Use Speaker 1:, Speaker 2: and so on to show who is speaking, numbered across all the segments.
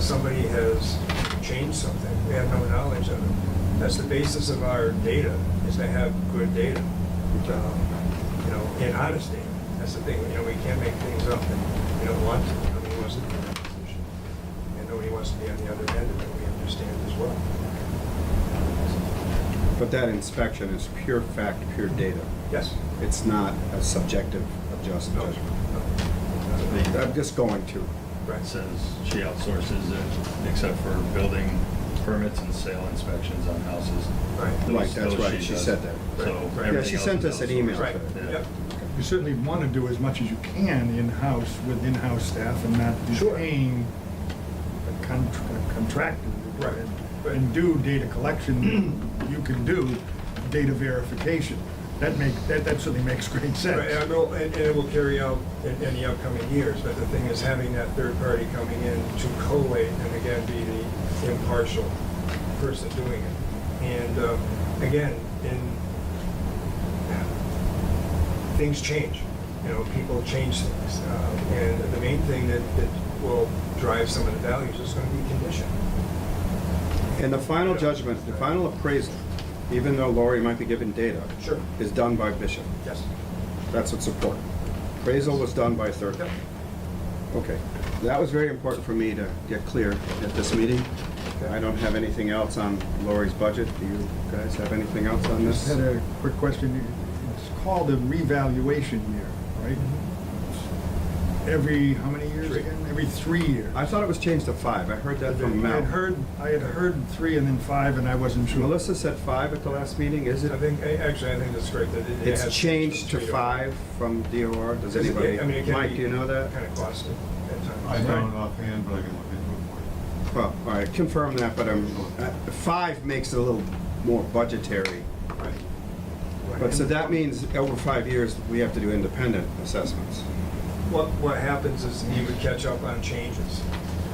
Speaker 1: somebody has changed something, we have no knowledge of it. That's the basis of our data, is to have good data, um, you know, and honest data. That's the thing, you know, we can't make things up, and we don't want to, nobody wants to be in that position. And nobody wants to be on the other end of it, we understand as well.
Speaker 2: But that inspection is pure fact, pure data.
Speaker 1: Yes?
Speaker 2: It's not a subjective adjust-
Speaker 1: No?
Speaker 2: judgment.
Speaker 1: No.
Speaker 2: I'm just going to.
Speaker 1: Right.
Speaker 3: says she outsources it except for building permits and sale inspections on houses.
Speaker 1: Right.
Speaker 2: Right,
Speaker 3: Those-
Speaker 2: that's
Speaker 3: those
Speaker 2: right, she
Speaker 3: does.
Speaker 2: said that.
Speaker 3: So
Speaker 1: Right. Yeah,
Speaker 2: Yeah,
Speaker 3: everything
Speaker 2: she
Speaker 3: else
Speaker 2: sent
Speaker 3: is
Speaker 2: us an
Speaker 3: outsourced.
Speaker 2: email
Speaker 1: Right,
Speaker 2: today.
Speaker 1: yep.
Speaker 4: You certainly want to do as much as you can in-house with in-house staff and not be
Speaker 1: Sure.
Speaker 4: paying a con- a contractor. to do it.
Speaker 1: Right, right.
Speaker 4: And do data collection, you can do data verification. That make, that, that certainly makes great
Speaker 1: Right, And
Speaker 4: sense.
Speaker 1: it'll- and- and it will carry out in in the upcoming years, but the thing is having that third party coming in to collate and again be the impartial person doing it. And um, again, in, things change, you know, people change things. Uh, And the main thing that that will drive some of the values is going to be condition.
Speaker 2: And the final judgment, the final appraisal, even though Lori might be given data,
Speaker 1: Sure.
Speaker 2: is done by Bishop.
Speaker 1: Yes.
Speaker 2: That's what's important. Appraisal was done by third.
Speaker 1: Yep.
Speaker 2: Okay, that was very important for me to get clear at this meeting. I don't have anything else on Lori's budget. Do you guys have anything else on
Speaker 4: Just
Speaker 2: this?
Speaker 4: had a quick question. It's called a revaluation year, right? Every, how many years
Speaker 1: Mm-hmm. Three.
Speaker 4: again? Every three years.
Speaker 2: I thought it was changed to five. I heard that from
Speaker 4: I
Speaker 2: Mel.
Speaker 4: had heard, I had heard three and then five, and I wasn't sure.
Speaker 2: Melissa said five at the last meeting, is it?
Speaker 1: I think, I- actually, I think that's great that it- it
Speaker 2: It's
Speaker 1: has-
Speaker 2: changed to five from DOR, does
Speaker 1: Because it-
Speaker 2: anybody?
Speaker 1: I mean, it can
Speaker 2: Mike,
Speaker 1: be-
Speaker 2: do you know that?
Speaker 1: Kind of costly at times.
Speaker 5: I don't offhand, but I can look into it for you.
Speaker 2: Well, all right, confirm that, but um, uh, five makes it a little more budgetary.
Speaker 1: Right.
Speaker 2: But so that means over five years, we have to do independent assessments.
Speaker 1: What, what happens is you would catch up on changes.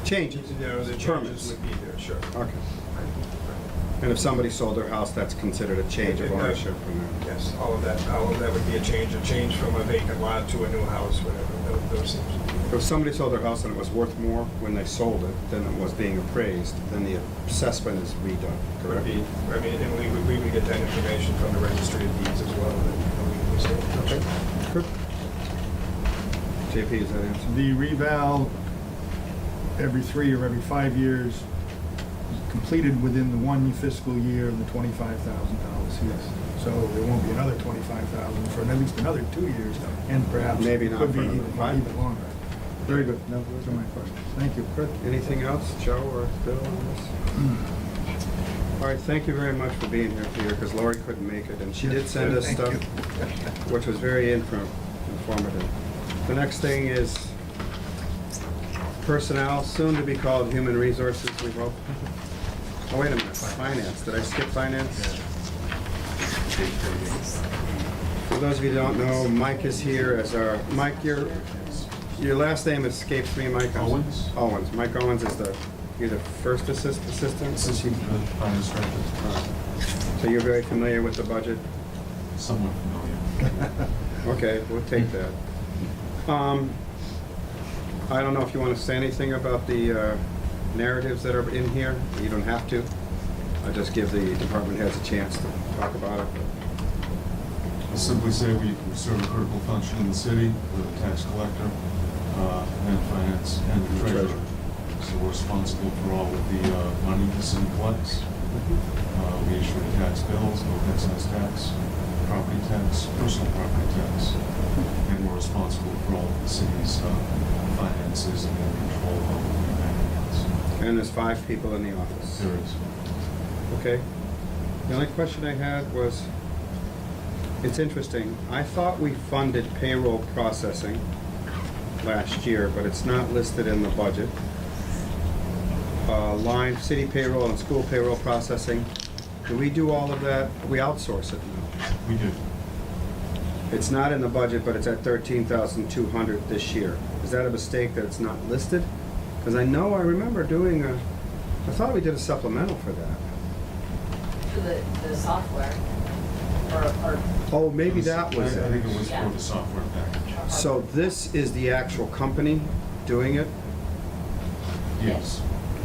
Speaker 2: Changes,
Speaker 1: You know, the
Speaker 2: Permits.
Speaker 1: changes would be there, sure.
Speaker 2: okay. And if somebody sold their house, that's considered a change of
Speaker 1: Yeah.
Speaker 2: ownership. and, uh,
Speaker 1: Yes, all of that, all of that would be a change, a change from a vacant lot to a new house, whatever, tho- those things.
Speaker 2: If somebody sold their house and it was worth more when they sold it than it was being appraised, then the assessment is redone,
Speaker 1: It would
Speaker 2: correct?
Speaker 1: be, I mean, and we would, we would get that information from the registry of deeds as well. that, you know, we- we stay in touch with.
Speaker 2: Good. JP, is that answer?
Speaker 4: The reval every three or every five years is completed within the one fiscal year of the twenty-five thousand dollars. Yes. So there won't be another twenty-five thousand for at least another two years, and perhaps.
Speaker 2: Maybe not
Speaker 4: Could be
Speaker 2: for another
Speaker 4: even
Speaker 2: five.
Speaker 4: even longer. Very good. No, those are my questions. Thank you.
Speaker 2: Good. Anything else, Joe or Bill on this?
Speaker 4: Hmm.
Speaker 2: All right, thank you very much for being here, Peter, because Lori couldn't make it, and she did send us
Speaker 4: Thank
Speaker 2: stuff,
Speaker 4: you.
Speaker 2: which was very infor- informative. The next thing is personnel, soon to be called human resources, we hope. Oh, wait a minute, finance, did I skip finance? For those of you who don't know, Mike is here as our, Mike, your, your last name escapes me, Mike. I'm-
Speaker 5: Owens?
Speaker 2: Owens. Mike Owens is the, you're the first assist, assistant?
Speaker 5: This is the uh, finance director,
Speaker 2: Uh, So you're very familiar with the budget?
Speaker 5: somewhat familiar.
Speaker 2: Okay, we'll take that. Um, I don't know if you want to say anything about the uh, narratives that are in here. You don't have to. I just give the department heads a chance to talk about it.
Speaker 5: I'll simply say we we serve a critical function in the city, we're the tax collector, uh, and finance, and the treasurer. So we're responsible for all of the uh, money the city collects. Uh, We issue the tax bills, both excise tax, property tax, personal property tax, and we're responsible for all of the city's uh, finances and control of the bank accounts.
Speaker 2: And there's five people in the office.
Speaker 5: There is.
Speaker 2: Okay. The only question I had was, it's interesting, I thought we funded payroll processing last year, but it's not listed in the budget. Uh, line, city payroll and school payroll processing, do we do all of that? We outsource it now.
Speaker 5: We do.
Speaker 2: It's not in the budget, but it's at thirteen thousand two hundred this year. Is that a mistake that it's not listed? Because I know, I remember doing a, I thought we did a supplemental for that.
Speaker 6: for the, the software, or, or,
Speaker 2: Oh, maybe that was
Speaker 5: I I think it
Speaker 2: it.
Speaker 5: was for the software package.
Speaker 6: or-
Speaker 2: So this is the actual company doing it?
Speaker 5: Yes.